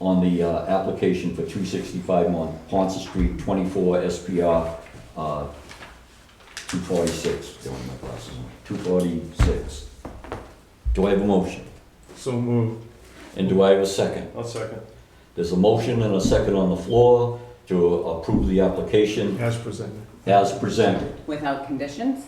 on the uh, application for 265 Mon Ponce Street, 24 SPR uh, 246. Don't have my glasses on. 246. Do I have a motion? So moved. And do I have a second? I'll second. There's a motion and a second on the floor to approve the application As presented. as presented, Without conditions?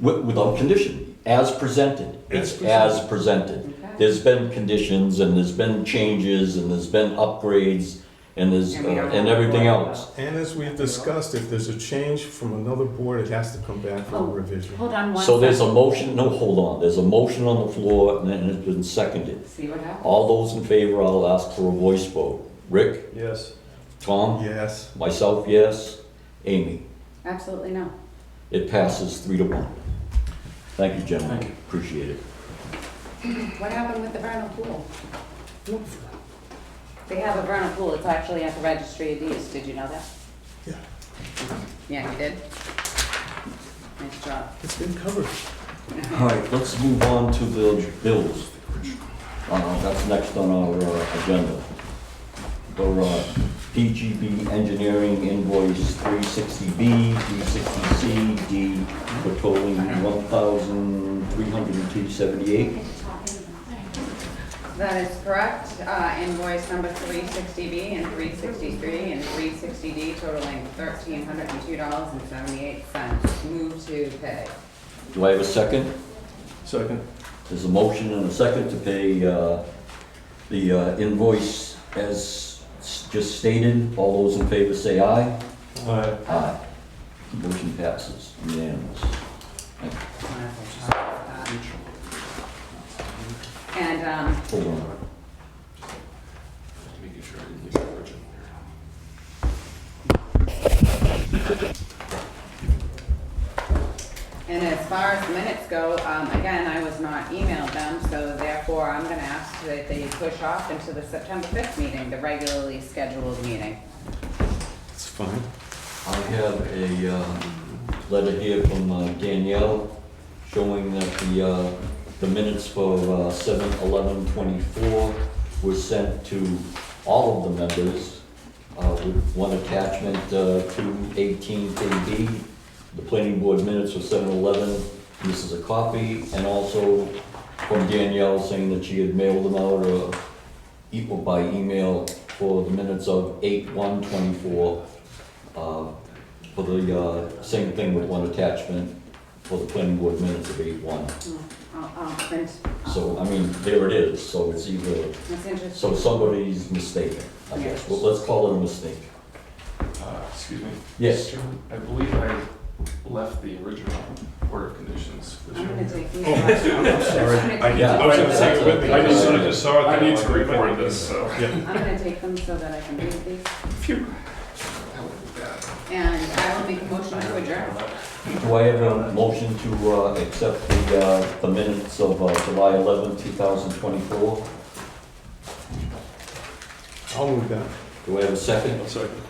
wi- without condition, as presented. As It's presented. as presented. Okay. There's been conditions and there's been changes and there's been upgrades and there's, And we don't uh, and have to everything worry about else. And as we've discussed, if there's a change from another board, it has to come back for a Oh. revision. Hold on one So there's a second. motion, no, hold on, there's a motion on the floor and then it's been seconded. See what happens? All those in favor, I'll ask for a voice vote. Rick? Yes. Tom? Yes. Myself, yes. Amy? Absolutely no. It passes three to one. Thank you, gentlemen, appreciate it. What happened with the vernal pool? They have a vernal pool, it's actually at the registry of deeds, did you know that? Yeah, Yeah, you did. Nice job. it's been covered. All right, let's move on to the bills. Uh, That's next on our uh, agenda. The uh, PGB Engineering invoice 360B, 360C, D for totaling 1,302.78. That is correct, Uh, invoice number 360B and 363 and 360D totaling $1,302.78. Move to pay. Do I have a second? Second. There's a motion and a second to pay uh, the uh, invoice as s- just stated. All those in favor say aye. Aye. Aye. Motion passes unanimous. Thank you. And um, Hold on. Making sure I didn't leave the original here. And as far as the minutes go, um, again, I was not emailed them, so therefore I'm gonna ask that they push off into the September fifth meeting, the regularly scheduled meeting. It's fine. I have a uh, letter here from uh, Danielle showing that the, uh, the minutes for uh, seven eleven twenty-four were sent to all of the members uh, with one attachment uh, to eighteen KB. The planning board minutes for seven eleven, this is a copy, and also from Danielle saying that she had mailed them out or equal by email for the minutes of eight one twenty-four uh, for the, uh, same thing with one attachment for the planning board minutes of eight one. I'll, I'll print, So, I mean, there it is, so it's either, that's interesting. so somebody's mistaken, I guess, well, let's call it a mistake. Uh, Excuse me? Yes. Mr. Chairman, I believe I left the original order of conditions with I'm gonna you. take these. Oh, I'm sorry. I'm Yeah. I was gonna take it with me. I just sort of Yeah. just saw it. I there, need like, to record like, this, so. Yeah, gonna take them so that I can read these, Phew. That would be bad. and I will make a motion to adjourn. Do I have a motion to, uh, accept the, uh, the minutes of, uh, July eleventh, two thousand twenty-four? I'll move that. Do I have a second? Second.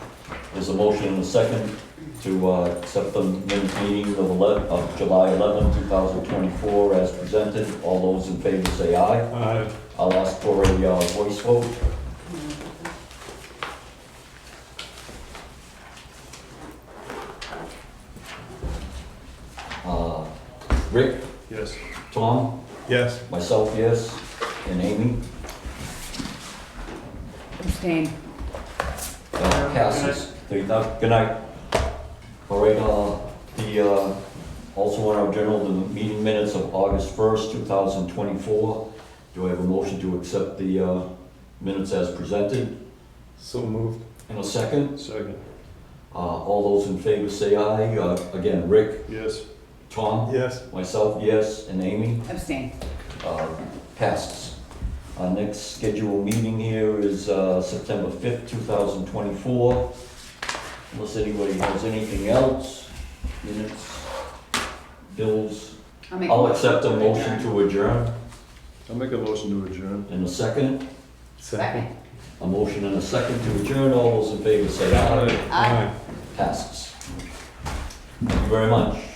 There's a motion and a second to, uh, accept the minutes meeting of eleven, of July eleventh, two thousand twenty-four as presented, all those in favor say aye. Aye. I'll ask for a uh, voice vote. Uh, Rick, Yes. Tom, Yes. myself, yes, and Amy, Abstain. uh, passes. Three thou- Good night. All right, uh, the, uh, also on our journal, the meeting minutes of August 1st, 2024. Do I have a motion to accept the uh, minutes as presented? So moved. And a second? Second. Uh, All those in favor say aye. Uh, Again, Rick, Yes. Tom, Yes. myself, yes, and Amy, Abstain. uh, passes. Our next scheduled meeting here is uh, September 5th, 2024. Unless anybody has anything else, minutes, bills, I'll make a I'll motion accept a to motion adjourn. to adjourn. I'll make a motion to adjourn. And a second, Second. a motion and a second to adjourn. All those in favor say aye. Aye. Aye. Passes. Thank you very much.